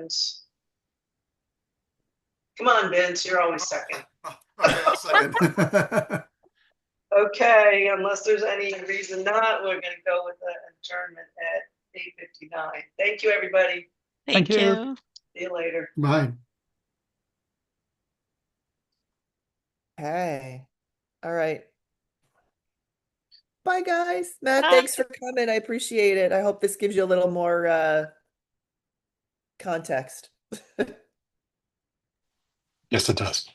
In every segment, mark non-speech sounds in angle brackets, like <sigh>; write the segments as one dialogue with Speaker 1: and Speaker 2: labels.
Speaker 1: seconds. Come on, Vince, you're always second.
Speaker 2: Okay, I'll second.
Speaker 1: Okay, unless there's any reason not, we're gonna go with the adjournment at eight fifty-nine. Thank you, everybody.
Speaker 3: Thank
Speaker 4: Thank
Speaker 3: you.
Speaker 4: you.
Speaker 1: See you later.
Speaker 2: Bye.
Speaker 5: Hey, all right. Bye, guys. Matt,
Speaker 4: Bye.
Speaker 5: thanks for coming. I appreciate it. I hope this gives you a little more uh context. <laughs>
Speaker 6: Yes, it does.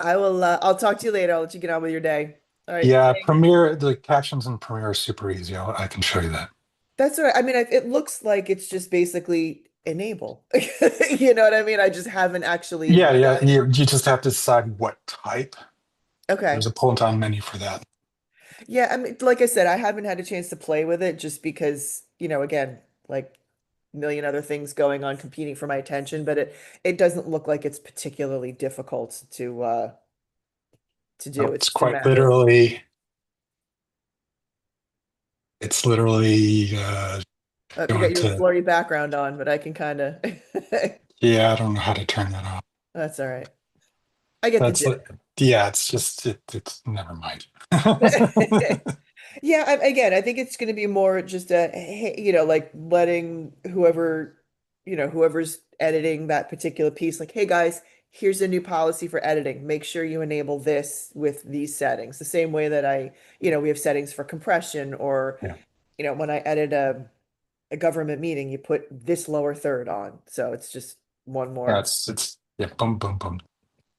Speaker 5: I will uh, I'll talk to you later. I'll let you get on with your day. All right.
Speaker 6: yeah, Premiere, the captions in Premiere are super easy. I'll, I can show you that.
Speaker 5: That's all right. I mean, I, it looks like it's just basically enable. <laughs> You know what I mean? I just haven't actually
Speaker 6: Yeah, yeah. You, you just have to decide what type.
Speaker 5: Okay.
Speaker 6: There's a pull down menu for that.
Speaker 5: Yeah, I mean, like I said, I haven't had a chance to play with it just because, you know, again, like million other things going on competing for my attention, but it it doesn't look like it's particularly difficult to uh to do.
Speaker 6: No, it's
Speaker 5: just a
Speaker 6: quite
Speaker 5: matter-
Speaker 6: literally. It's literally. Uh,
Speaker 5: Uh, you
Speaker 6: going
Speaker 5: got your
Speaker 6: to-
Speaker 5: blurry background on, but I can kind of
Speaker 6: yeah, I don't know how to turn that off.
Speaker 5: <laughs> That's all right. I get the
Speaker 6: That's
Speaker 5: gist.
Speaker 6: like- yeah. It's just it, it's never mind. <laughs>
Speaker 5: <laughs> Yeah, I, again, I think it's going to be more just a, hey, you know, like letting whoever, you know, whoever's editing that particular piece, like, hey guys, here's a new policy for editing. Make sure you enable this with these settings. The same way that I, you know, we have settings for compression or,
Speaker 6: Yeah.
Speaker 5: you know, when I edit a a government meeting, you put this lower third on. So it's just one more.
Speaker 6: That's it's yeah. Boom, boom, boom.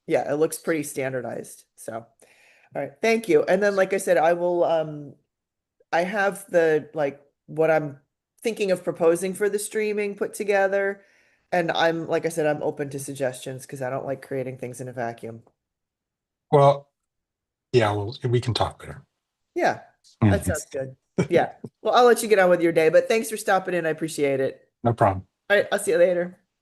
Speaker 5: Yeah, it looks pretty standardized. So, all right, thank you. And then, like I said, I will, um, I have the, like, what I'm thinking of proposing for the streaming put together. And I'm, like I said, I'm open to suggestions because I don't like creating things in a vacuum.
Speaker 6: Well, yeah. Well, we can talk later.
Speaker 5: Yeah, that sounds good. Yeah. Well, I'll let you get on with your day, but thanks for stopping in. I appreciate it.
Speaker 6: No problem.
Speaker 5: All right, I'll see you later.